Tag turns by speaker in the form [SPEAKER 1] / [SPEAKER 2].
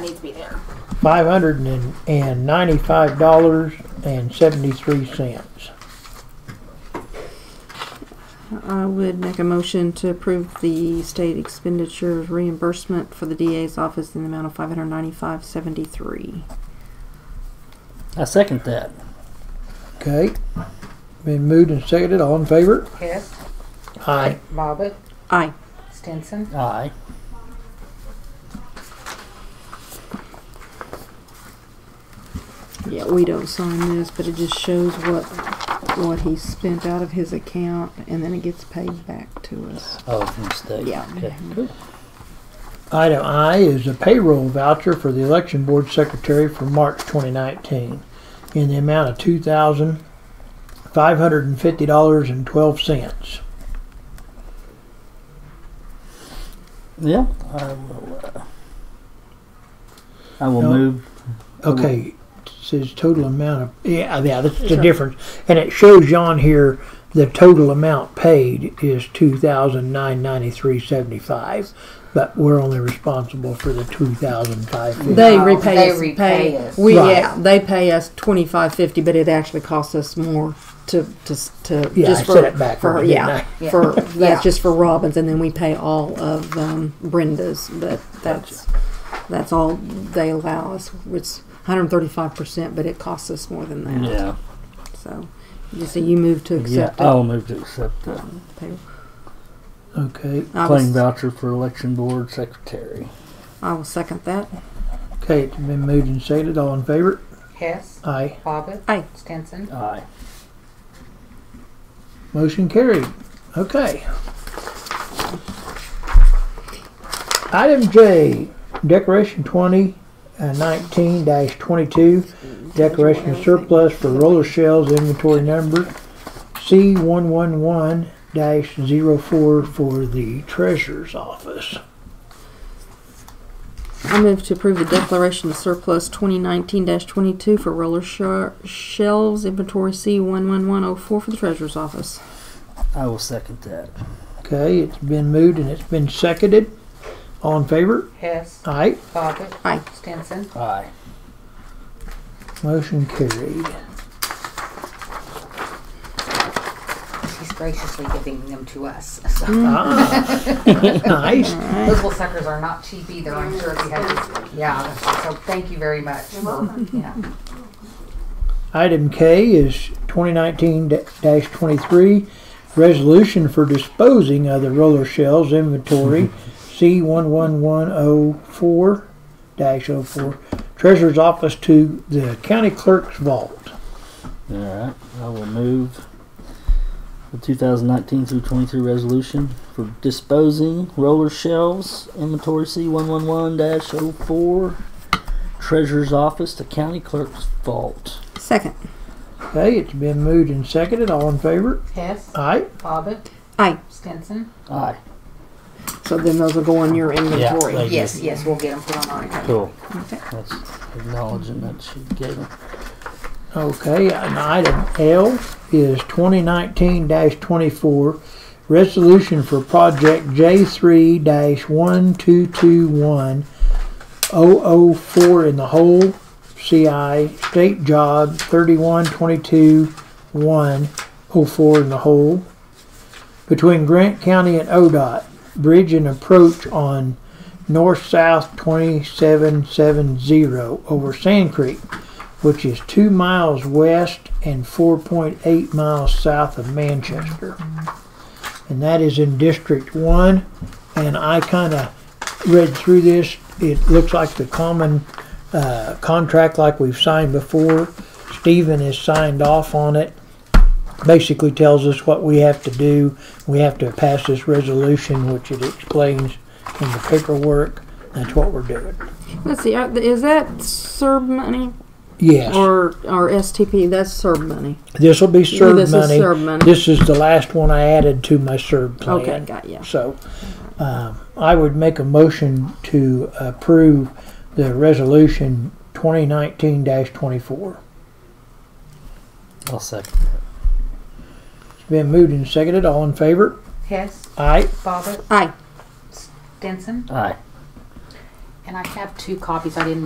[SPEAKER 1] needs to be there.
[SPEAKER 2] five hundred and and ninety-five dollars and seventy-three cents.
[SPEAKER 3] I would make a motion to approve the state expenditure reimbursement for the DA's office in the amount of five hundred ninety-five seventy-three.
[SPEAKER 4] I second that.
[SPEAKER 2] Okay, been moved and seconded. All in favor?
[SPEAKER 5] Hess,
[SPEAKER 2] Aye.
[SPEAKER 5] Bobbit,
[SPEAKER 3] Aye.
[SPEAKER 5] Stinson,
[SPEAKER 4] Aye.
[SPEAKER 3] Yeah, we don't sign this, but it just shows what, what he spent out of his account and then it gets paid back to us.
[SPEAKER 4] Oh, from the state.
[SPEAKER 3] Yeah.
[SPEAKER 4] Okay, cool.
[SPEAKER 2] Item I is a payroll voucher for the election board secretary for March 2019 in the amount of two thousand five hundred and fifty dollars and twelve cents.
[SPEAKER 4] Yeah. I will, uh, I will
[SPEAKER 2] No.
[SPEAKER 4] move.
[SPEAKER 2] Okay, it says total amount of yeah yeah that's the difference, and it shows on here the total amount paid is two thousand nine ninety three seventy five, but we're only responsible for the two thousand five fifty.
[SPEAKER 3] They
[SPEAKER 5] No,
[SPEAKER 3] repay
[SPEAKER 5] they
[SPEAKER 3] us.
[SPEAKER 5] repay
[SPEAKER 3] pay-
[SPEAKER 5] us.
[SPEAKER 3] We
[SPEAKER 2] Right.
[SPEAKER 3] yeah, they pay us twenty five fifty, but it actually costs us more to to to
[SPEAKER 2] Yeah,
[SPEAKER 3] just
[SPEAKER 2] I
[SPEAKER 3] for
[SPEAKER 2] said it backwards,
[SPEAKER 3] for her,
[SPEAKER 2] didn't
[SPEAKER 3] yeah,
[SPEAKER 5] I?
[SPEAKER 3] for
[SPEAKER 5] Yeah.
[SPEAKER 3] that's
[SPEAKER 5] Yeah.
[SPEAKER 3] just for Robbins, and then we pay all of um, Brenda's, but that's that's all they allow us. It's one hundred thirty five percent, but it costs us more than that.
[SPEAKER 4] Yeah.
[SPEAKER 3] So you see, you move to
[SPEAKER 4] Yeah.
[SPEAKER 3] accept it.
[SPEAKER 4] I'll move to accept the
[SPEAKER 3] Payroll.
[SPEAKER 2] Okay,
[SPEAKER 3] I will,
[SPEAKER 4] claim
[SPEAKER 3] s-
[SPEAKER 4] voucher for election board secretary.
[SPEAKER 3] I will second that.
[SPEAKER 2] okay, it's been moved and seconded. All in favor?
[SPEAKER 5] Hess,
[SPEAKER 2] Aye.
[SPEAKER 5] Bobbit,
[SPEAKER 3] Aye.
[SPEAKER 5] Stinson,
[SPEAKER 4] Aye.
[SPEAKER 2] Motion carried. Okay. Item J, Decoration 2019-22, Decoration Surplus for Roller Shells Inventory Number C111-04 for the Treasurer's Office.
[SPEAKER 3] I move to approve the declaration of surplus 2019-22 for roller shar- shelves inventory C11104 for the treasurer's office.
[SPEAKER 4] I will second that.
[SPEAKER 2] Okay, it's been moved and it's been seconded. All in favor?
[SPEAKER 5] Hess,
[SPEAKER 2] Aye.
[SPEAKER 5] Bobbit,
[SPEAKER 3] Aye.
[SPEAKER 5] Stinson,
[SPEAKER 4] Aye.
[SPEAKER 2] Motion carried.
[SPEAKER 5] she's graciously giving them to us. So
[SPEAKER 2] Ah, nice.
[SPEAKER 5] Those little suckers are not cheap either, I'm sure if you have, yeah, so thank you very much. for- Yeah.
[SPEAKER 2] Item K is 2019-23, resolution for disposing of the roller shells inventory, C11104-04, Treasurer's Office to the County Clerk's Vault.
[SPEAKER 4] All right. I will move the 2019 through 23 resolution for disposing roller shelves inventory C111-04 treasurer's office to county clerk's vault.
[SPEAKER 3] Second.
[SPEAKER 2] Okay, it's been moved and seconded. All in favor?
[SPEAKER 5] Hess,
[SPEAKER 2] Aye.
[SPEAKER 5] Bobbit,
[SPEAKER 3] Aye.
[SPEAKER 5] Stinson.
[SPEAKER 4] Aye.
[SPEAKER 3] So then those will go in your inventory.
[SPEAKER 4] they-
[SPEAKER 5] Yes, yes, we'll get them put on our account.
[SPEAKER 4] Cool.
[SPEAKER 3] Okay.
[SPEAKER 4] That's acknowledging that she gave it.
[SPEAKER 2] Okay, and item L is 2019-24, resolution for project J3-1221, 004 in the whole, CI, state job 3122-104 in the whole, between Grant County and ODOT, bridge and approach on north-south 2770 over Sand Creek which is two miles west and 4.8 miles south of Manchester. And that is in District 1. And I kind of read through this. It looks like the common uh, contract like we've signed before. Stephen has signed off on it. Basically tells us what we have to do. We have to pass this resolution, which it explains in the paperwork. That's what we're doing.
[SPEAKER 3] Let's see. uh, Is that CERB money
[SPEAKER 2] Yes.
[SPEAKER 3] or or STP? That's CERB money.
[SPEAKER 2] This will be
[SPEAKER 3] Yeah,
[SPEAKER 2] served
[SPEAKER 3] this is
[SPEAKER 2] money.
[SPEAKER 3] served money.
[SPEAKER 2] This is the last one I added to my served plan.
[SPEAKER 3] Okay, got ya.
[SPEAKER 2] So, um, I would make a motion to approve the resolution 2019-24.
[SPEAKER 4] I'll second that.
[SPEAKER 2] It's been moved and seconded. All in favor?
[SPEAKER 5] Hess,
[SPEAKER 2] Aye.
[SPEAKER 5] Bobbit,
[SPEAKER 3] Aye.
[SPEAKER 5] Stinson.
[SPEAKER 4] Aye.
[SPEAKER 5] And I have two copies. I didn't